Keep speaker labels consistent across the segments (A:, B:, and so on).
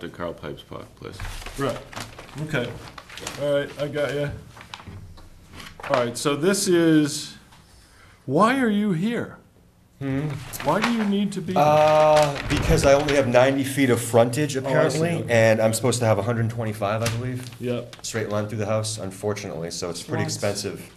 A: to Carl Pipes Park, please.
B: Right, okay, all right, I got you. All right, so this is, why are you here? Why do you need to be? here?
C: Hmm? Uh, because I only have 90 feet of frontage apparently,
B: okay.
C: and I'm supposed to have 125, I believe,
B: Yep,
C: straight line through the house, unfortunately, so it's pretty
B: Lots.
C: expensive.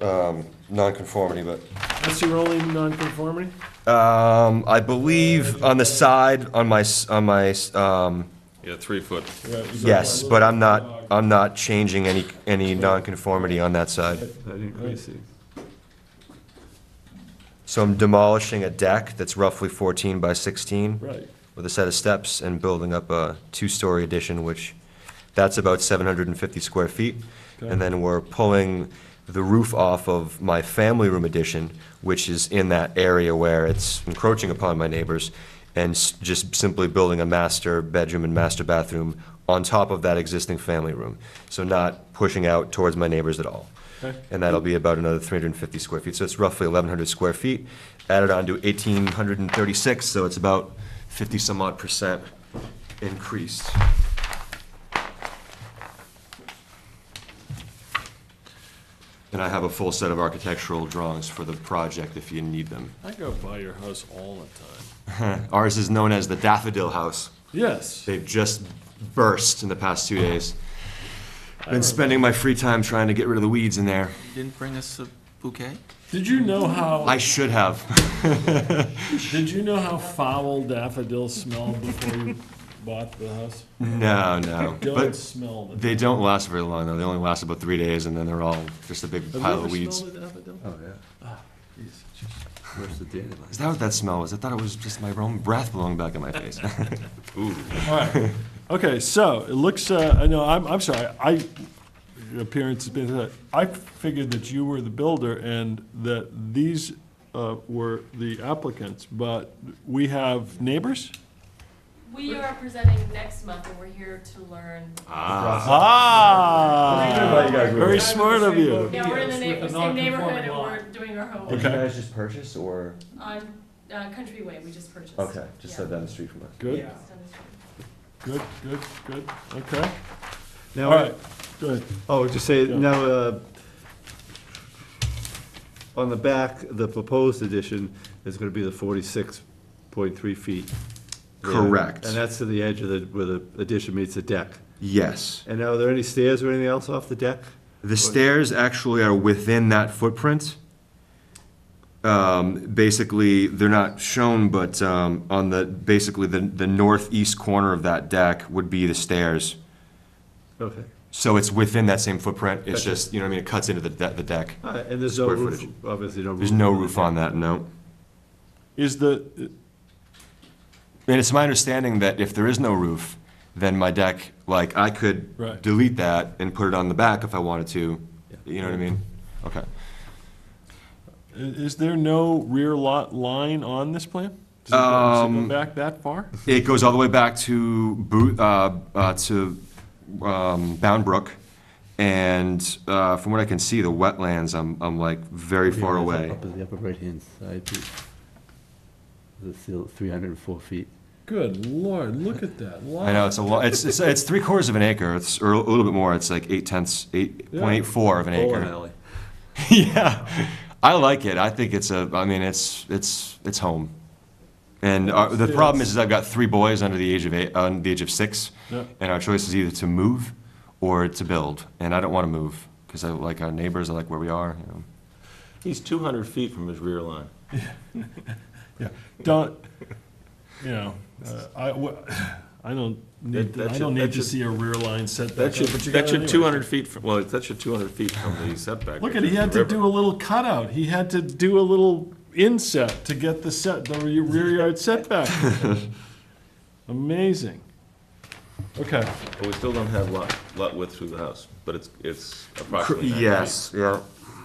C: Um, non-conformity, but,
B: that's your only nonconformity.
C: um, I believe on the side, on my, s- on my, s- um,
A: Yeah, three foot.
B: Right, you got
C: yes,
B: that
C: but I'm
B: little
C: not,
B: dog.
C: I'm not changing any, any non-conformity on that side.
A: I didn't quite see.
C: So I'm demolishing a deck that's roughly 14 by 16.
B: Right,
C: with a set of steps and building up a two-story addition, which, that's about 750 square feet.
B: Okay.
C: And then we're pulling the roof off of my family room addition, which is in that area where it's encroaching upon my neighbors, and s- just simply building a master bedroom and master bathroom on top of that existing family room. So not pushing out towards my neighbors at all.
B: Okay.
C: And that'll be about another 350 square feet, so it's roughly 1,100 square feet, added on to 1,836, so it's about 50-some odd percent increased. And I have a full set of architectural drawings for the project if you need them.
B: I go by your house all the time.
C: Ours is known as the Daffodil House.
B: Yes,
C: They've just burst in the past two days. Been spending my free time trying to get rid of the weeds in there.
D: Didn't bring us a bouquet?
B: did you know how,
C: I should have.
B: did you know how foul daffodils smelled before you bought the house?
C: No, no.
B: Don't
C: But
B: smell them.
C: they don't last very long, though. They only last about three days, and then they're all just a big
B: Have you
C: pile
B: ever
C: of weeds.
B: smelled a daffodil? Ah,
A: Oh, yeah. Where's the dandelion?
C: Is that what that smell was? I thought it was just my own breath blowing back in my face.
A: Ooh,
B: All right. Okay, so it looks, uh, I know, I'm, I'm sorry, I, your appearance has been, I figured that you were the builder and that these uh, were the applicants, but we have neighbors?
E: We are presenting next month, and we're here to learn.
B: Ah! Very smart of you.
E: Yeah, we're in the neigh-
F: With a
E: same neighborhood, and we're
F: non-conforming
E: doing our
C: Did
E: homework
C: you guys just purchase, or?
E: on uh, Countryway, we just purchased.
C: Okay, just
E: Yeah.
C: down the street from us.
B: Good,
F: Yeah.
E: Just down the street.
B: good, good, good, okay. All
G: Now,
B: right, good.
G: oh, just say,
B: Yeah.
G: now, uh, on the back, the proposed addition is gonna be the forty-six point three feet. there.
C: Correct.
G: And that's to the edge of the, where the addition meets the deck.
C: Yes.
G: And now, are there any stairs or anything else off the deck?
C: The stairs actually are within that footprint. Um, basically, they're not shown, but, um, on the, basically, the, the northeast corner of that deck would be the stairs.
G: Okay,
C: So it's within that same footprint, it's
G: Gotcha.
C: just, you know what I mean, it cuts into the, de- the deck.
G: all right, Uh, and there's no
C: Square
G: roof,
C: footage.
G: obviously no roof.
C: There's no roof on that, no.
B: Is the,
C: And it's my understanding that if there is no roof, then my deck, like, I
B: Right.
C: could delete that and put it on the back if I wanted to, you know what I mean? Okay.
B: i- is there no rear lot line on this plan? Does it go- does it go
C: Um,
B: back that far?
C: It goes all the way back to Boot, uh, uh, to, um, Bound Brook. And, uh, from what I can see, the wetlands, I'm, I'm like very far away.
H: Up in the upper right-hand side, the- the seal, 304 feet.
B: Good lord, look at that.
C: I know, it's a lot, it's, it's, it's three quarters of an acre, it's, or a little bit more, it's like eight tenths, eight point eight four of an acre.
G: alley.
C: Yeah, I like it, I think it's a, I mean, it's, it's, it's home. And our, the problem is, is I've got three boys under the age of eight, under the age of six,
B: Yeah.
C: and our choice is either to move or to build, and I don't wanna move, cause I like our neighbors, I like where we are, you know.
A: he's two hundred feet from his rear line.
B: Yeah, don't, you know, uh, I, w- I don't
A: That- that
B: need, to- I
A: should-
B: don't
A: that
B: need to
A: should-
B: see a rear line setback.
A: That's your,
B: but you
A: that's
B: got it
A: your
B: anyway.
A: two hundred feet from, well, that's your two hundred feet from the setback.
B: Look
A: which
B: at, he
A: is
B: had
A: the
B: to
A: river.
B: do a little cutout, he had to do a little inset to get the set, the re- rear yard setback. Amazing. Okay,
A: But we still don't have lot, lot width through the house, but it's, it's
C: Cor-
A: approximately. 90 feet.
C: Yes, yeah.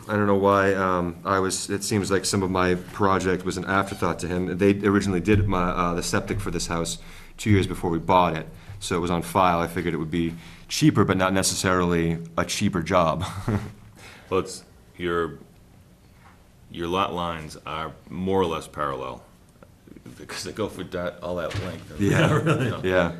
C: I don't know why, um, I was, it seems like some of my project was an afterthought to him. They originally did my, uh, the septic for this house two years before we bought it, so it was on file. I figured it would be cheaper, but not necessarily a cheaper job.
A: Well, it's, your, your lot lines are more or less parallel, because they go for that, all that length.
C: Yeah,
A: You know,
C: yeah.